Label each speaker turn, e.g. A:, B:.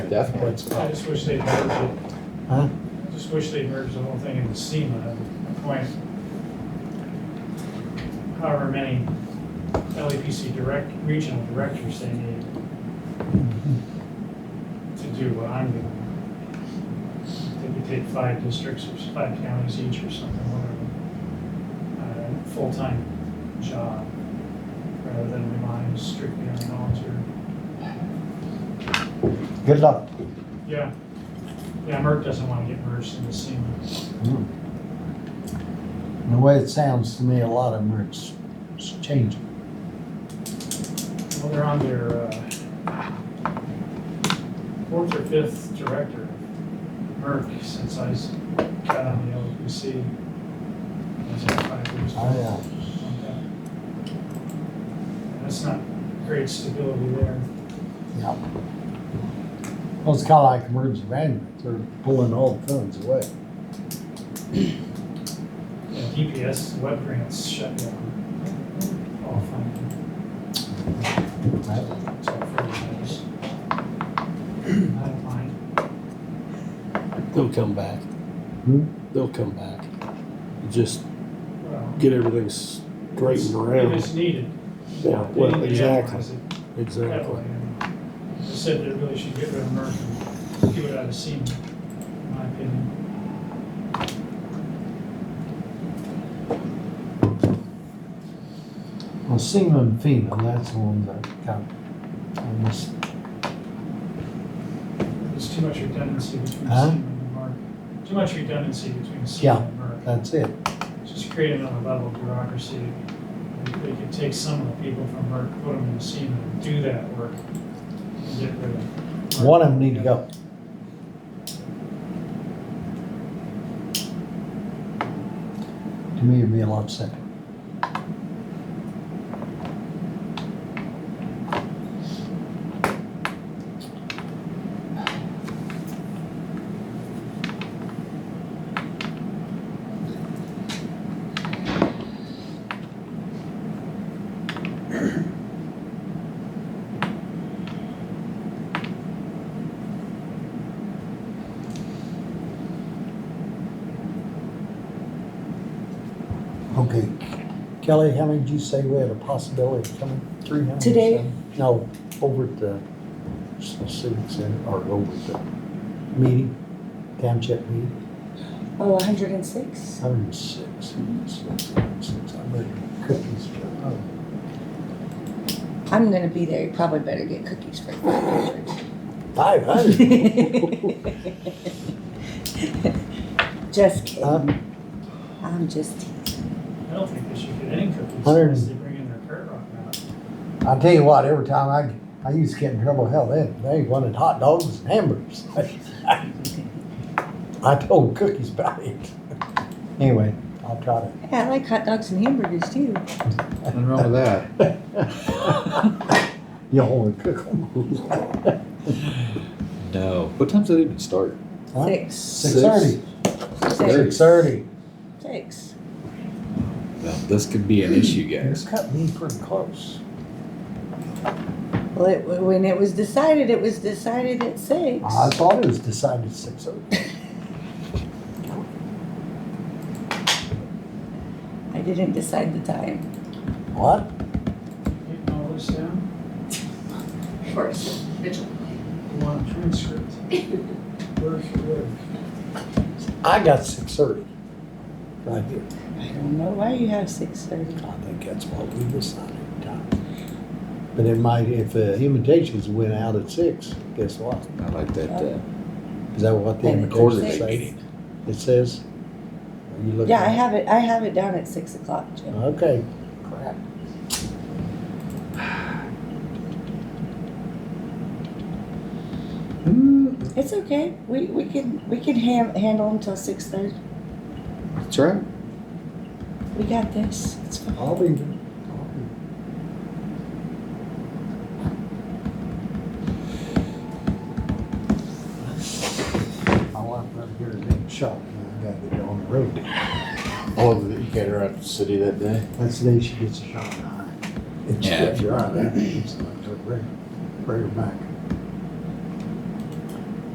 A: Definitely.
B: I just wish they merged it,
C: Huh?
B: just wish they merged the whole thing into SEMA at the point. However many LEPC direct, regional directors they need to do what I'm doing. They could take five districts or five counties each or something, whatever. Uh, Full-time job, rather than relying strictly on volunteer.
C: Good luck.
B: Yeah. Yeah, Merck doesn't want to get merged into SEMA.
C: And Mm. the way it sounds to me, a lot of them are s- s- changing.
B: Well, they're on their uh, fourth or fifth director, Merck, since I s- got on the LPC. was that five years
C: I,
B: ago?
C: uh,
B: Okay. That's not great stability there.
C: yeah. Well, it's kind of like emergency management, they're pulling all the funds away.
B: Yeah, DPS, web grants shut down. All funding.
C: Right?
B: It's all free grants. I don't mind.
D: They'll come back.
C: Hmm?
D: They'll come back. Just
B: Well,
D: get everything straightened
B: If
D: around.
B: it's needed.
D: Yeah,
B: They
D: well,
B: need to
D: exactly,
B: analyze it.
D: exactly.
B: They said they really should get rid of Merck and do it out of SEMA, in my opinion.
C: Well, SEMA and FEMA, that's the ones that got, I just,
B: There's too much redundancy between
C: Huh?
B: SEMA and Merck. Too much redundancy between
C: Yeah.
B: SEMA and Merck.
C: that's it.
B: Just create another level of bureaucracy. They they could take some of the people from Merck, put them in SEMA, and do that work, and get rid of. Merck.
C: One of them need to go. To me, it'd be a lot simpler. Okay. Kelly, how many did you say we had a possibility of coming? Three hundred?
E: Today?
C: No, over at the civic center, or over at the meeting, township meeting,
E: Oh, 106?
C: hundred and six, hundred and six, hundred and six. I'm ready for cookies. for-
E: I'm gonna be there. You probably better get cookies for 500.
C: Five hundred?
E: Just
C: Huh?
E: kidding. I'm just teasing.
B: I don't think they should get any cookies
C: Hundred
B: unless they
C: and-
B: bring in their Kurt Rock out.
C: I tell you what, every time I, I used to get in trouble, hell, they, they wanted hot dogs and hamburgers. I told cookies about it. Anyway, I'll try to
E: Yeah, I like hot dogs and hamburgers too.
A: Nothing wrong with that.
C: You only cook them.
A: No. What time's that even start?
E: Six.
C: Six thirty.
E: Six.
C: Six thirty.
E: Six.
A: Well, this could be an issue,
C: It's
A: guys.
C: cut me pretty close.
E: Well, it, when it was decided, it was decided at six.
C: I thought it was decided six thirty.
E: I didn't decide the time.
C: What?
B: Getting all this down,
F: Of course, Mitchell.
B: you want a transcript. Where's your work?
C: I got six thirty. Right here.
E: I don't know why you have six thirty.
C: I think that's what we decided at the time. But it might, if the invitations went out at six, guess what?
A: I like that uh,
C: Is that what the
E: And
C: invitations
A: quarterly
C: say?
A: meeting.
C: It says? Are you looking?
E: Yeah, I have it, I have it down at six o'clock, Jim.
C: Okay. Crap.
A: Mm,
E: It's okay. We, we can, we can ham, handle until six thirty.
A: That's right.
E: We got this. It's fine.
C: I'll be there. My wife right here is in shock. I gotta get her on the road.
G: Oh, you got her out of the city that day?
C: That's the day she gets a shot in the eye. And she
G: Yeah.
C: gets her eye back. It's like her prayer, prayer back.